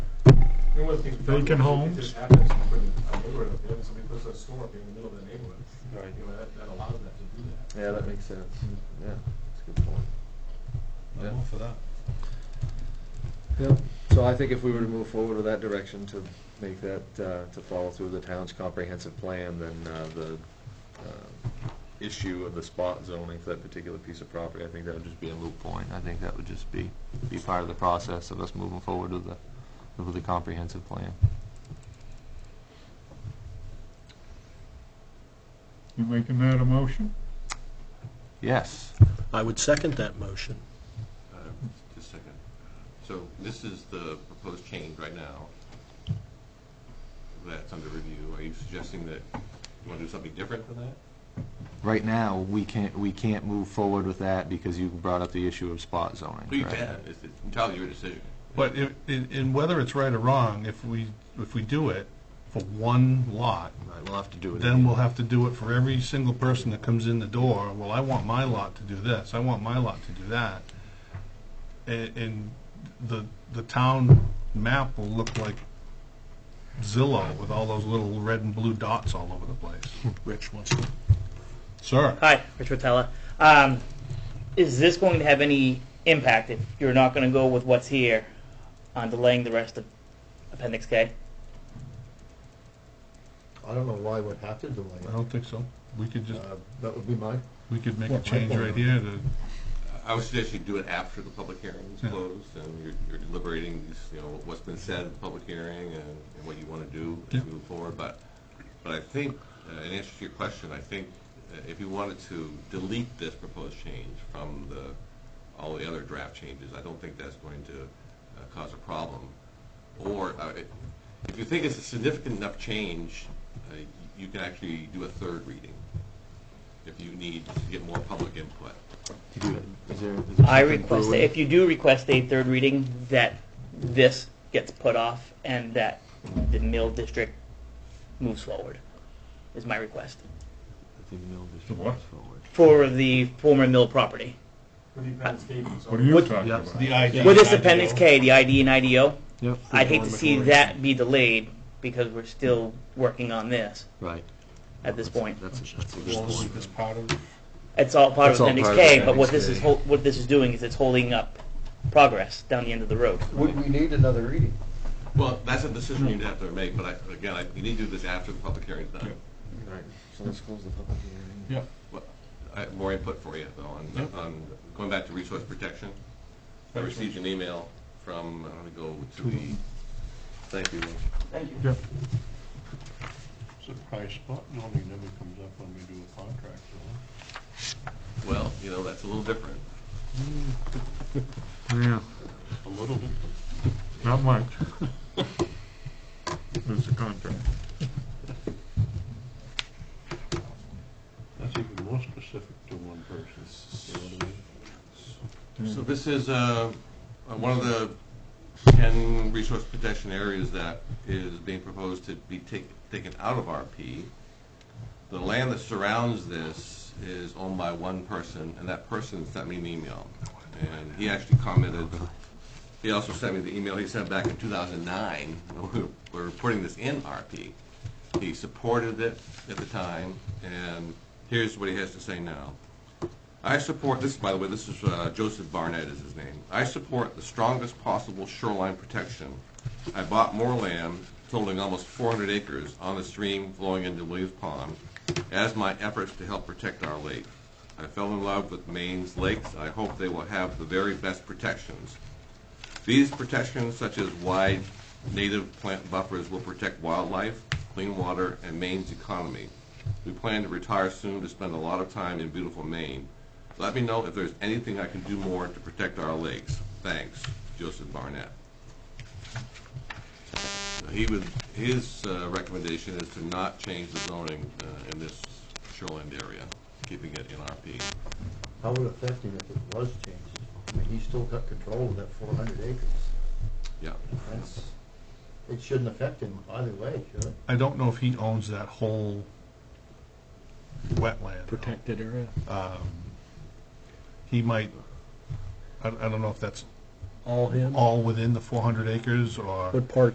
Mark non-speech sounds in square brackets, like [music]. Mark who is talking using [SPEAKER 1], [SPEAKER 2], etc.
[SPEAKER 1] You know, one thing-
[SPEAKER 2] Vacant homes.
[SPEAKER 1] It just happens when a neighborhood, up there, and somebody puts a store up in the middle of the neighborhood.
[SPEAKER 3] Right.
[SPEAKER 1] You know, that, that allows that to do that.
[SPEAKER 4] Yeah, that makes sense.
[SPEAKER 5] Hmm.
[SPEAKER 4] Yeah, that's a good point. Yeah.
[SPEAKER 5] I'm all for that.
[SPEAKER 4] Yep. So I think if we were to move forward with that direction to make that, uh, to follow through the town's comprehensive plan, then uh, the uh, issue of the spot zoning for that particular piece of property, I think that would just be a moot point. I think that would just be, be part of the process of us moving forward with the, with the comprehensive plan.
[SPEAKER 2] You making that a motion?
[SPEAKER 4] Yes.
[SPEAKER 6] I would second that motion.
[SPEAKER 7] Uh, Just a second. So this is the proposed change right now that's under review. Are you suggesting that you want to do something different than that?
[SPEAKER 4] Right now, we can't, we can't move forward with that because you brought up the issue of spot zoning.
[SPEAKER 7] Well, you
[SPEAKER 4] correct?
[SPEAKER 7] can. It's it's entirely your decision.
[SPEAKER 5] But if, in, in whether it's right or wrong, if we, if we do it for one lot,
[SPEAKER 4] Right, we'll have to do it.
[SPEAKER 5] then we'll have to do it for every single person that comes in the door. Well, I want my lot to do this, I want my lot to do that. And, and the, the town map will look like Zillow with all those little red and blue dots all over the place.
[SPEAKER 6] Rich wants to.
[SPEAKER 5] Sir?
[SPEAKER 8] Hi, Rich Rotella. Um, is this going to have any impact if you're not going to go with what's here on delaying the rest of Appendix K?
[SPEAKER 3] I don't know why we'd have to delay
[SPEAKER 5] I don't think so. We could
[SPEAKER 3] it.
[SPEAKER 5] just,
[SPEAKER 3] Uh, That would be my,
[SPEAKER 5] we could make
[SPEAKER 3] Well,
[SPEAKER 5] a
[SPEAKER 3] I
[SPEAKER 5] change
[SPEAKER 3] don't
[SPEAKER 5] right
[SPEAKER 3] know.
[SPEAKER 5] here to,
[SPEAKER 7] I would suggest you do it after the public hearing is
[SPEAKER 5] Yeah.
[SPEAKER 7] closed and you're- you're deliberating, these, you know, what's been said in the public hearing and and what you want to do
[SPEAKER 5] Yeah.
[SPEAKER 7] as you move forward. But, but I think, uh, in answer to your question, I think uh, if you wanted to delete this proposed change from the, all the other draft changes, I don't think that's going to uh, cause a problem. Or uh, it- if you think it's a significant enough change, uh, you can actually do a third reading if you need to get more public input.
[SPEAKER 4] Is there- is there
[SPEAKER 8] I
[SPEAKER 4] something
[SPEAKER 8] request that
[SPEAKER 4] brewing?
[SPEAKER 8] if you do request a third reading, that this gets put off and that the mill district moves forward. Is my request
[SPEAKER 4] The mill
[SPEAKER 2] The
[SPEAKER 4] district
[SPEAKER 2] what?
[SPEAKER 4] moves forward.
[SPEAKER 8] for the former mill property.
[SPEAKER 1] With the Penn State, so-
[SPEAKER 2] What are you
[SPEAKER 8] What-
[SPEAKER 2] talking
[SPEAKER 3] yeah,
[SPEAKER 2] about?
[SPEAKER 5] the ID.
[SPEAKER 8] With this Appendix K, the ID and IDO,
[SPEAKER 4] Yep.
[SPEAKER 8] I'd hate to see that be delayed because we're still working on this
[SPEAKER 4] Right.
[SPEAKER 8] at this point.
[SPEAKER 4] That's, that's a good
[SPEAKER 5] Well,
[SPEAKER 4] point.
[SPEAKER 5] It's part of,
[SPEAKER 8] It's all part
[SPEAKER 4] It's
[SPEAKER 8] of
[SPEAKER 4] all
[SPEAKER 8] Appendix
[SPEAKER 4] part of
[SPEAKER 8] K, but what
[SPEAKER 4] Appendix
[SPEAKER 8] this is
[SPEAKER 4] K.
[SPEAKER 8] hol- what this is doing is it's holding up progress down the end of the road.
[SPEAKER 3] would we need another reading?
[SPEAKER 7] Well, that's a decision you'd have to make, but I, again, I, you need to do this after the public hearing's done.
[SPEAKER 4] Right. So let's close the public hearing.
[SPEAKER 5] yeah.
[SPEAKER 7] Well, I have more input for you, though, on, on, going back to resource protection. I received an email from, I'm gonna go to the,
[SPEAKER 4] Thank you.
[SPEAKER 3] Surprise spot normally never comes up when we do a contract,
[SPEAKER 7] well, you know, that's a little different.
[SPEAKER 2] Yeah,
[SPEAKER 3] A little bit.
[SPEAKER 2] not much. It's a contract.
[SPEAKER 3] That's even more specific to one person, you know what I mean?
[SPEAKER 7] So this is, uh, uh, one of the ten resource protection areas that is being proposed to be take, taken out of RP. The land that surrounds this is owned by one person, and that person sent me an email. And he actually commented, he also sent me the email he sent back in two thousand nine, [laughs] we were reporting this in RP. He supported it at the time, and here's what he has to say now. I support this, by the way, this is uh, Joseph Barnett is his name. I support the strongest possible shoreline protection. I bought more land totaling almost 400 acres on the stream flowing into Williams Pond as my efforts to help protect our lake. I fell in love with Maine's lakes. I hope they will have the very best protections. These protections, such as wide native plant buffers, will protect wildlife, clean water, and Maine's economy. We plan to retire soon to spend a lot of time in beautiful Maine. Let me know if there's anything I can do more to protect our lakes. Thanks, Joseph Barnett. He would, his uh, recommendation is to not change the zoning uh, in this shoreland area, keeping it in RP.
[SPEAKER 3] How would it affect him if it was changed? I mean, he's still got control of that four hundred acres.
[SPEAKER 7] Yeah.
[SPEAKER 3] That's, it shouldn't affect him either way, should it?
[SPEAKER 5] I don't know if he owns that whole wetland. though.
[SPEAKER 2] Protected area.
[SPEAKER 5] He might, I, I don't know if that's
[SPEAKER 3] All him?
[SPEAKER 5] all within the four hundred acres or.
[SPEAKER 6] What part